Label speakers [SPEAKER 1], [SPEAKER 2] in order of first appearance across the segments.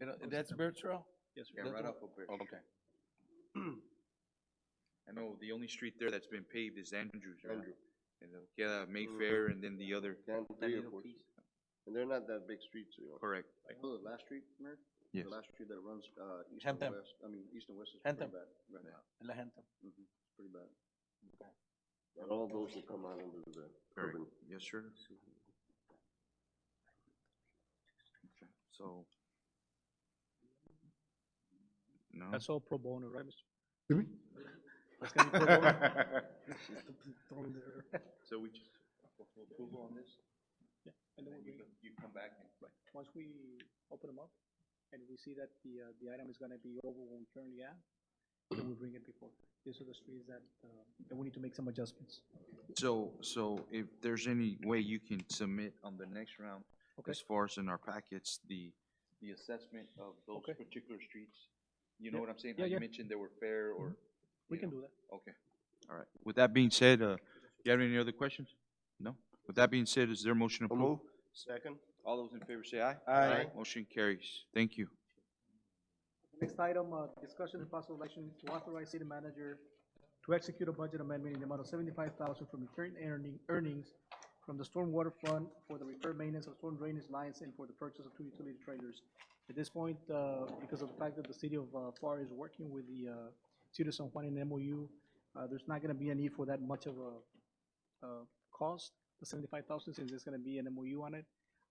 [SPEAKER 1] You know, that's Birch Row?
[SPEAKER 2] Yes, sir.
[SPEAKER 1] Yeah, right
[SPEAKER 2] off of Birch.
[SPEAKER 1] Oh, okay.
[SPEAKER 2] I know the only street there that's been paved is Andrews, right?
[SPEAKER 3] Andrew.
[SPEAKER 2] And then, yeah,
[SPEAKER 4] Mm-hmm.
[SPEAKER 2] Mayfair and then the other,
[SPEAKER 3] Down to three or four. And they're not that big streets, you know.
[SPEAKER 2] correct.
[SPEAKER 3] I know Oh, the last street, Mayor?
[SPEAKER 2] Yes.
[SPEAKER 3] The last street that runs, uh, east and
[SPEAKER 1] Hampton.
[SPEAKER 3] west, I mean, east and west is pretty
[SPEAKER 1] Hampton.
[SPEAKER 3] bad right now.
[SPEAKER 1] La Gente.
[SPEAKER 3] Mhm, It's pretty bad. And all those will come out under the
[SPEAKER 2] Correct.
[SPEAKER 3] urban.
[SPEAKER 2] Yes, sir. Okay, So. No?
[SPEAKER 4] That's all pro bono, right, Mr.?
[SPEAKER 2] So we just. Approval on this?
[SPEAKER 4] And then we,
[SPEAKER 2] You come back and.
[SPEAKER 4] once we open them up and we see that the, uh, the item is gonna be over what we currently have, then we bring it before. These are the streets that, uh, that we need to make some adjustments.
[SPEAKER 2] So, so if there's any way you can submit on the next round,
[SPEAKER 4] Okay.
[SPEAKER 2] as far as in our packets, the. The assessment of those
[SPEAKER 4] Okay.
[SPEAKER 2] particular streets, you
[SPEAKER 4] Yeah.
[SPEAKER 2] know what I'm saying?
[SPEAKER 4] Yeah,
[SPEAKER 2] How
[SPEAKER 4] yeah.
[SPEAKER 2] you mentioned they were fair or.
[SPEAKER 4] We
[SPEAKER 2] you
[SPEAKER 4] can
[SPEAKER 2] know.
[SPEAKER 4] do that.
[SPEAKER 2] Okay, all right. With that being said, uh, you have any other questions? No? With that being said, is there a motion to approve?
[SPEAKER 3] Second?
[SPEAKER 2] All those in favor say aye.
[SPEAKER 3] Aye.
[SPEAKER 2] Motion carries. Thank you.
[SPEAKER 4] Next item, uh, discussion and possible action to authorize city manager to execute a budget amendment in the amount of seventy-five thousand from current earning, earnings from the stormwater fund for the repair maintenance of storm drainage lines and for the purchase of two utility trailers. At this point, uh, because of the fact that the city of, uh, FAR is working with the, uh, City of San Juan in MOU, uh, there's not gonna be a need for that much of a, uh, cost. The seventy-five thousand, since there's gonna be an MOU on it.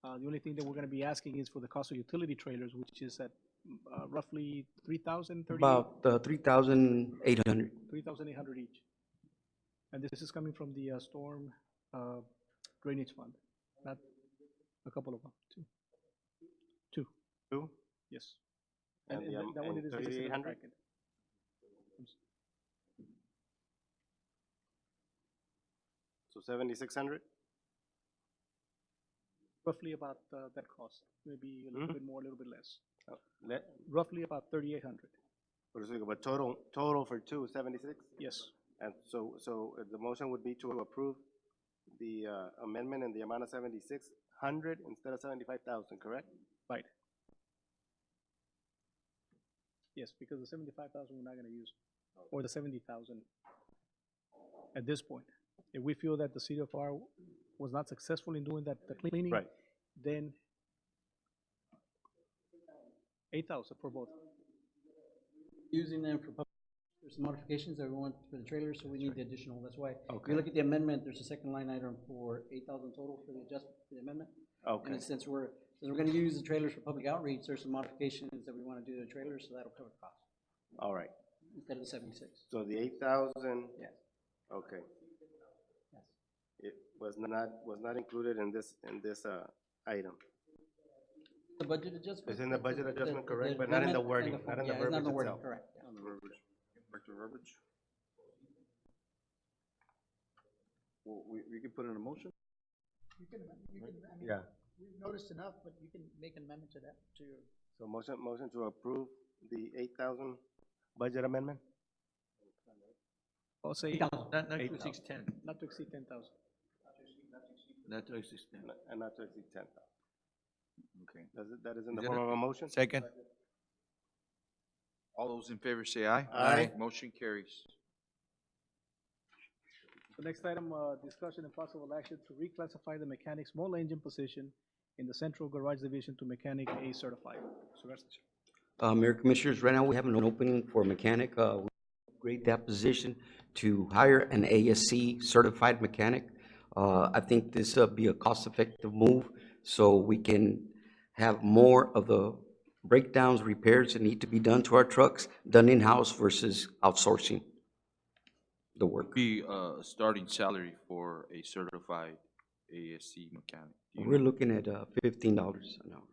[SPEAKER 4] Uh, the only thing that we're gonna be asking is for the cost of utility trailers, which is at uh, roughly three thousand, thirty,
[SPEAKER 5] About uh, 3,800.
[SPEAKER 4] three thousand eight hundred each. And this is coming from the uh, storm uh, drainage fund, not a couple of them, two. Two,
[SPEAKER 3] Two?
[SPEAKER 4] yes.
[SPEAKER 3] And
[SPEAKER 4] And and
[SPEAKER 3] the
[SPEAKER 4] that
[SPEAKER 3] am-
[SPEAKER 4] that one
[SPEAKER 3] and
[SPEAKER 4] it is listed in the
[SPEAKER 3] 3,800?
[SPEAKER 4] packet.
[SPEAKER 3] So seventy-six hundred?
[SPEAKER 4] Roughly about uh, that cost, maybe a
[SPEAKER 3] Mm-hmm.
[SPEAKER 4] little bit more, a little bit less.
[SPEAKER 3] Let,
[SPEAKER 4] Roughly about thirty-eight hundred,
[SPEAKER 3] what is it, but total, total for two, seventy-six?
[SPEAKER 4] yes.
[SPEAKER 3] And so, so uh, the motion would be to approve the uh, amendment in the amount of seventy-six hundred instead of seventy-five thousand, correct?
[SPEAKER 4] Right. Yes, because the seventy-five thousand we're not gonna use, or the seventy thousand at this point. If we feel that the city of FAR was not successful in doing that, the cleaning.
[SPEAKER 3] Right.
[SPEAKER 4] Then eight thousand for both.
[SPEAKER 6] using them for pub- there's some modifications that we want for the trailer, so we need the additional, that's why. If you look at the amendment, there's a second line item for eight thousand total for the adjustment, for the amendment.
[SPEAKER 3] Okay,
[SPEAKER 6] And since we're, since we're gonna use the trailers for public outreach, there's some modifications that we wanna do to the trailers, so that'll cover the cost,
[SPEAKER 3] all right.
[SPEAKER 6] instead of the seventy-six.
[SPEAKER 3] So the eight thousand,
[SPEAKER 6] Yes,
[SPEAKER 3] okay,
[SPEAKER 6] yes.
[SPEAKER 3] it was not, was not included in this, in this, uh, item.
[SPEAKER 6] The budget adjustment.
[SPEAKER 3] It's in the budget adjustment, correct,
[SPEAKER 6] the
[SPEAKER 3] but not in
[SPEAKER 6] amendment
[SPEAKER 3] the
[SPEAKER 6] and
[SPEAKER 3] wording,
[SPEAKER 6] the-
[SPEAKER 3] not in the
[SPEAKER 6] yeah, it's
[SPEAKER 3] verbiage
[SPEAKER 6] wording,
[SPEAKER 3] itself.
[SPEAKER 6] Correct, yeah.
[SPEAKER 3] Well, we, we can put in a motion?
[SPEAKER 6] You can, you can, I
[SPEAKER 3] Yeah.
[SPEAKER 6] we've noticed enough, but you can make an amendment to that, to your.
[SPEAKER 3] So motion, motion to approve the eight thousand budget amendment?
[SPEAKER 4] I'll say
[SPEAKER 1] Not, not two six ten.
[SPEAKER 4] not to exceed ten thousand.
[SPEAKER 1] Not two six ten.
[SPEAKER 3] And not to exceed ten thousand.
[SPEAKER 2] Okay.
[SPEAKER 3] Does it, that is in the
[SPEAKER 2] Is it
[SPEAKER 3] form
[SPEAKER 2] a-
[SPEAKER 3] of a motion?
[SPEAKER 1] Second.
[SPEAKER 2] All those in favor say aye.
[SPEAKER 3] Aye.
[SPEAKER 2] Motion carries.
[SPEAKER 4] The next item, uh, discussion and possible action to reclassify the mechanic small engine position in the central garage division to mechanic A certified. So that's-
[SPEAKER 5] Uh, Mayor Commissioners, right now, we have an opening for mechanic. uh, We Upgrade that position to hire an ASC certified mechanic. Uh, I think this would be a cost-effective move, so we can have more of the breakdowns, repairs that need to be done to our trucks, done in-house versus outsourcing the work.
[SPEAKER 2] Be uh, a starting salary for a certified ASC mechanic. Do you
[SPEAKER 5] We're
[SPEAKER 2] know?
[SPEAKER 5] looking at uh, $15 an hour.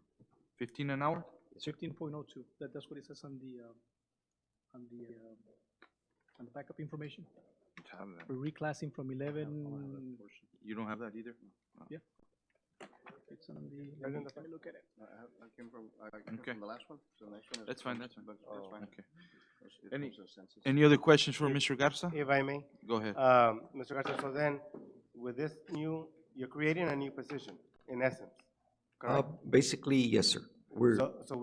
[SPEAKER 2] Fifteen an hour?
[SPEAKER 4] Fifteen point oh two, that, that's what it says on the, uh, on the, uh, on the backup information.
[SPEAKER 2] Don't have that.
[SPEAKER 4] We're reclassing from eleven,
[SPEAKER 2] You don't have that either?
[SPEAKER 4] it's on the,
[SPEAKER 3] Right
[SPEAKER 4] let me
[SPEAKER 3] in the-
[SPEAKER 4] let me look at it.
[SPEAKER 3] I came from, I
[SPEAKER 2] Okay. from
[SPEAKER 3] the last one, so the next one
[SPEAKER 2] That's fine, that's fine. Okay.
[SPEAKER 3] It
[SPEAKER 2] Any-
[SPEAKER 3] comes to a census.
[SPEAKER 2] Any other questions for Mr. Garza?
[SPEAKER 3] If I may,
[SPEAKER 2] Go ahead.
[SPEAKER 3] um, Mr. Garcia, so then, with this new, you're creating a new position, in essence,
[SPEAKER 5] Uh,
[SPEAKER 3] correct?
[SPEAKER 5] Basically, yes, sir. We're.
[SPEAKER 3] So, so